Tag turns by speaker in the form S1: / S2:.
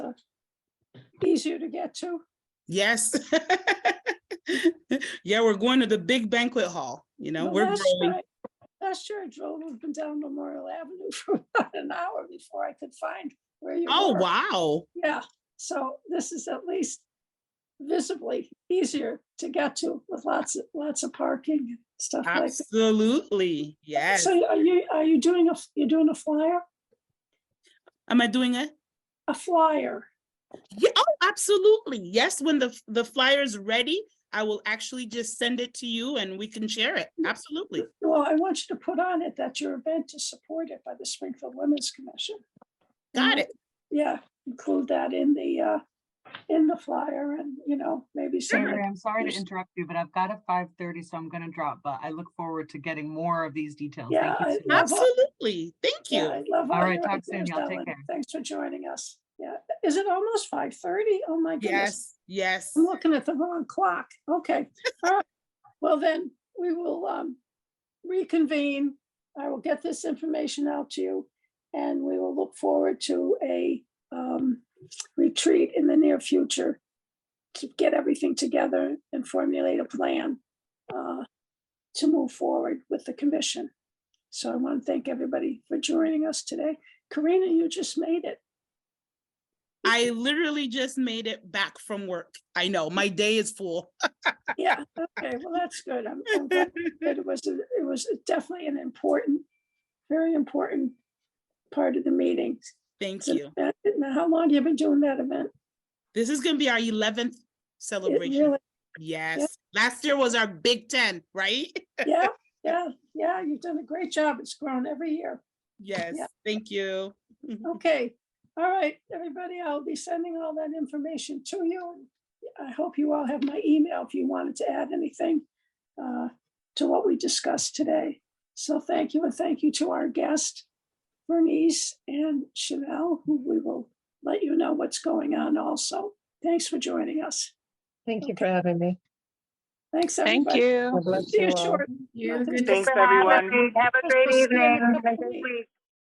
S1: easier to get to?
S2: Yes. Yeah, we're going to the big banquet hall, you know,
S1: Well,
S2: we're
S1: last
S2: growing.
S1: night- Last year I drove up and down Memorial Avenue for about an hour before I could find where you were.
S2: Oh, wow.
S1: Yeah, so this is at least visibly easier to get to with lots of, lots of parking and stuff like. that.
S2: Absolutely. Yes.
S1: So are you, are you doing a, you're doing a flyer?
S2: Am I doing it?
S1: A flyer?
S2: Yeah, oh, absolutely. Yes, when the f- the flyer's ready, I will actually just send it to you and we can share it.
S1: Mm-hmm.
S2: Absolutely.
S1: Well, I want you to put on it that your event is supported by the Springfield Women's Commission.
S2: Got it.
S1: Yeah, include that in the, uh, in the flyer and, you know, maybe some.
S3: Sorry, I'm sorry to
S1: Yes.
S3: interrupt you, but I've got a five thirty, so I'm gonna drop, but I look forward to getting more of these details.
S1: Yeah, I
S3: Thank you. so much.
S1: love all-
S2: Absolutely. Thank
S1: Yeah,
S2: you.
S1: I love
S3: All
S1: all
S3: right,
S1: your
S3: talk soon,
S1: ideas,
S3: y'all. Take
S1: Ellen.
S3: care.
S1: Thanks for joining us. Yeah, is it almost five thirty? Oh, my goodness.
S2: Yes, yes.
S1: I'm looking at the wrong clock. Okay. All right. Well, then we will um, reconvene. I will get this information out to you and we will look forward to a um, retreat in the near future to get everything together and formulate a plan uh, to move forward with the commission. So I want to thank everybody for joining us today. Karina, you just made it.
S2: I literally just made it back from work. I know, my day is full.
S1: Yeah, okay, well, that's good. I'm I'm glad that it was, a- it was definitely an important, very important part of the meeting.
S2: Thank
S1: So,
S2: you.
S1: uh, Now, how long you been doing that event?
S2: This is gonna be our eleventh
S1: It
S2: celebration.
S1: really-
S2: Yes, last year was our Big Ten, right?
S1: Yeah, yeah, yeah, you've done a great job. It's grown every year.
S2: Yes, thank you.
S1: Okay, all right, everybody, I'll be sending all that information to you. I hope you all have my email if you wanted to add anything uh, to what we discussed today. So thank you and thank you to our guest, Bernice and Chanel, who we will let you know what's going on also. Thanks for joining us.
S4: Thank you for having me.
S1: Thanks,
S5: Thank
S1: everybody.
S5: you.
S4: God bless
S1: See you
S4: all.
S1: short. Nothing-
S6: Thanks, everyone.
S7: Have a
S1: Thanks
S7: great
S1: for staying
S7: evening.
S1: a
S7: Have a
S1: couple
S7: good
S1: weeks.
S7: week.